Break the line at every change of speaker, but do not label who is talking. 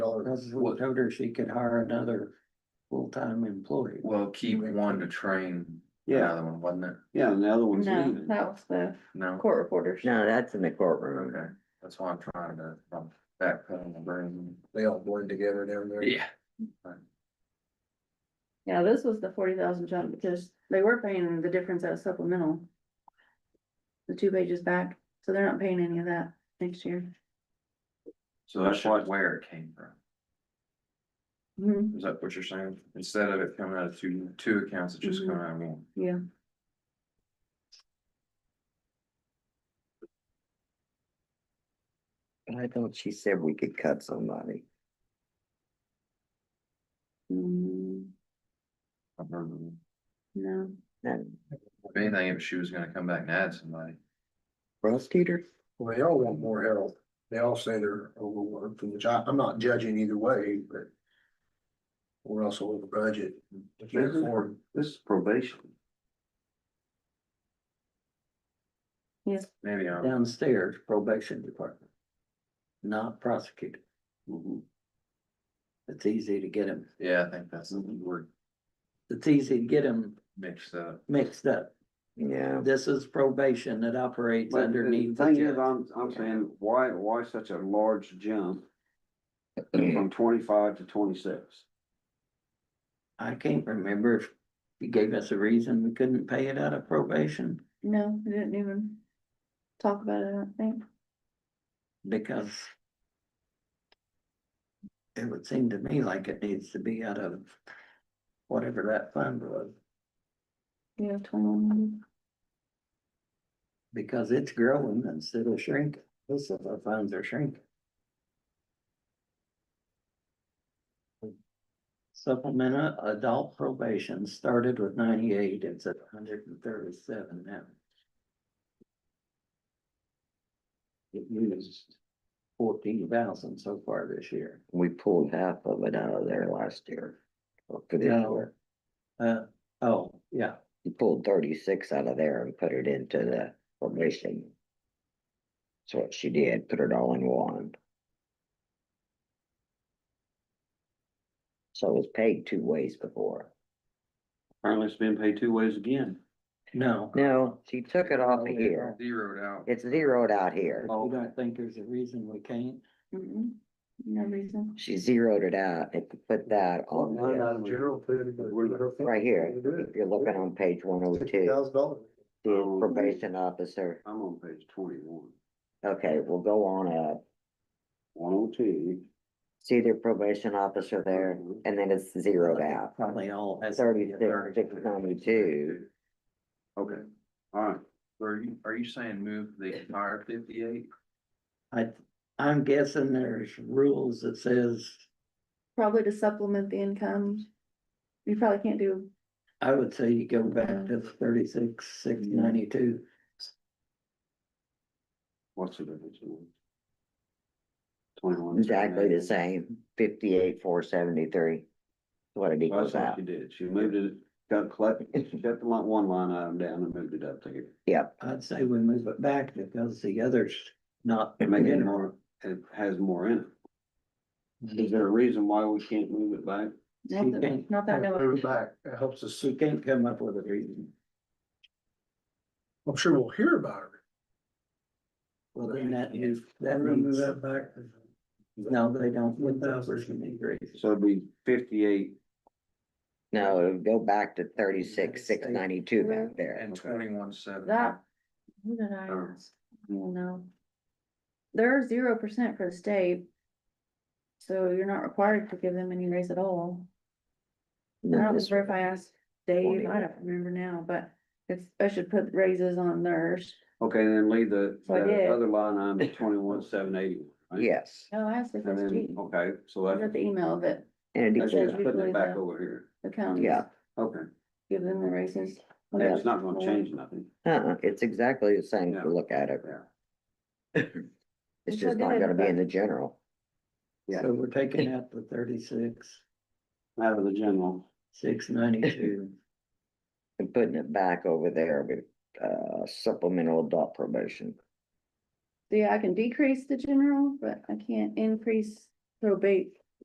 Because we
Well-
told her she could hire another full-time employee.
Well, keep one to train.
Yeah,
Another one, wasn't it?
yeah, and the other one's
No,
leaving.
that was the
No,
court reporters.
No, that's in the courtroom.
okay, that's why I'm trying to, I'm back putting the brain.
They all blend together down there.
Yeah.
Yeah, this was the forty thousand jump because they were paying the difference as supplemental. The two pages back, so they're not paying any of that next year.
So that's why where it came from.
Mhm,
Is that what you're saying? Instead of it coming out of two, two accounts, it's just
Mm-hmm.
Mhm.
coming out of one.
yeah.
I thought she said we could cut somebody.
Mm,
I remember.
no,
That
If anything, if she was gonna come back and add somebody.
prosecutor?
Well, they all want more help. They all say they're overworked, which I, I'm not judging either way, but. We're also over budget. We can't
This is-
afford-
This is probation.
yes,
Maybe I'm,
Downstairs probation department. Not prosecutor.
Mhm.
It's easy to get them,
yeah, I think that's the
Mm-hmm.
word
it's easy to get them
mixed up.
mixed up.
Yeah,
This is probation that operates
But the
underneath. the
thing is,
judge.
I'm, I'm saying, why, why such a large jump from twenty-five to twenty-six?
I can't remember if you gave us a reason we couldn't pay it out of probation
no, we didn't even talk about it, I don't think.
because it would seem to me like it needs to be out of whatever that fund was.
You have twenty-one hundred.
Because it's growing instead of shrinking. This is our funds are shrinking. Supplemental uh, adult probation started with ninety-eight, it's at hundred and thirty-seven now. It used fourteen thousand so far this year.
we pulled half of it out of there last year. Or for this
No.
year.
Uh, oh, yeah,
We pulled thirty-six out of there and put it into the probation. That's what she did, put it all in one. So it was paid two ways before.
Apparently it's been paid two ways again.
no,
No, she took it
Oh,
off of here.
Zeroed out.
It's zeroed out here.
you don't think there's a reason we can't?
Mm-mm, no reason.
She zeroed it out. If you put that on,
Oh,
Line
the-
item, general fund, but we don't think
Right here.
we do it.
if you're looking on page one oh two,
$60,000.
probation officer.
I'm on page twenty-one,
Okay, we'll go on up.
one oh two.
See the probation officer there, and then it's zeroed out.
Probably all. has to be a
Thirty-six, six ninety-two.
Okay, all right.
Are you, are you saying move the entire fifty-eight?
I, I'm guessing there's rules that says,
Probably to supplement the income. You probably can't do,
I would say you go back
Mm-hmm.
to thirty-six, six ninety-two.
What's the difference? in those? Twenty-one.
Exactly the same, fifty-eight, four seventy-three. What it
Well,
equals
That's what
out.
she did. She moved it, got collect, shut the line, one line item down and moved it up to here.
Yep,
I'd say we move it back because the other's not.
It makes it more, it has more in it. Is there a reason why we can't move it back?
not that- not that, no.
Move it back. It helps us.
She can't come up with a reason.
I'm sure we'll hear about it.
Well, then that is, that
We're gonna move
means,
that back.
no, they don't, one thousand increase.
So it'd be fifty-eight,
no, it'll go back to thirty-six, six ninety-two back there.
And
Okay.
twenty-one seven.
That, who did I
Oh.
ask? I don't know. They're zero percent for the state. So you're not required to give them any raise at all. I
No,
don't
this-
remember if I asked Dave, I
Forty.
don't remember now, but it's, I should put raises on theirs.
okay, then leave the,
So I
the
did.
other line item at twenty-one, seven eighty.
Yes,
No, I asked if
And
it's
then,
cheating.
okay, so
I got
that,
the email that
and it
that's
says
just
equals,
we
putting
believe
it back
that.
over here.
the county
yeah,
Okay,
give them the raises.
yeah, it's not gonna change nothing.
uh-uh, it's exactly the same if you
Yeah.
look at it.
Yeah.
It's
So
just not
did-
gonna be in the general.
Yeah.
So we're taking out the thirty-six,
Out of the general,
six ninety-two.
And putting it back over there with uh supplemental adult probation.
Yeah, I can decrease the general, but I can't increase probate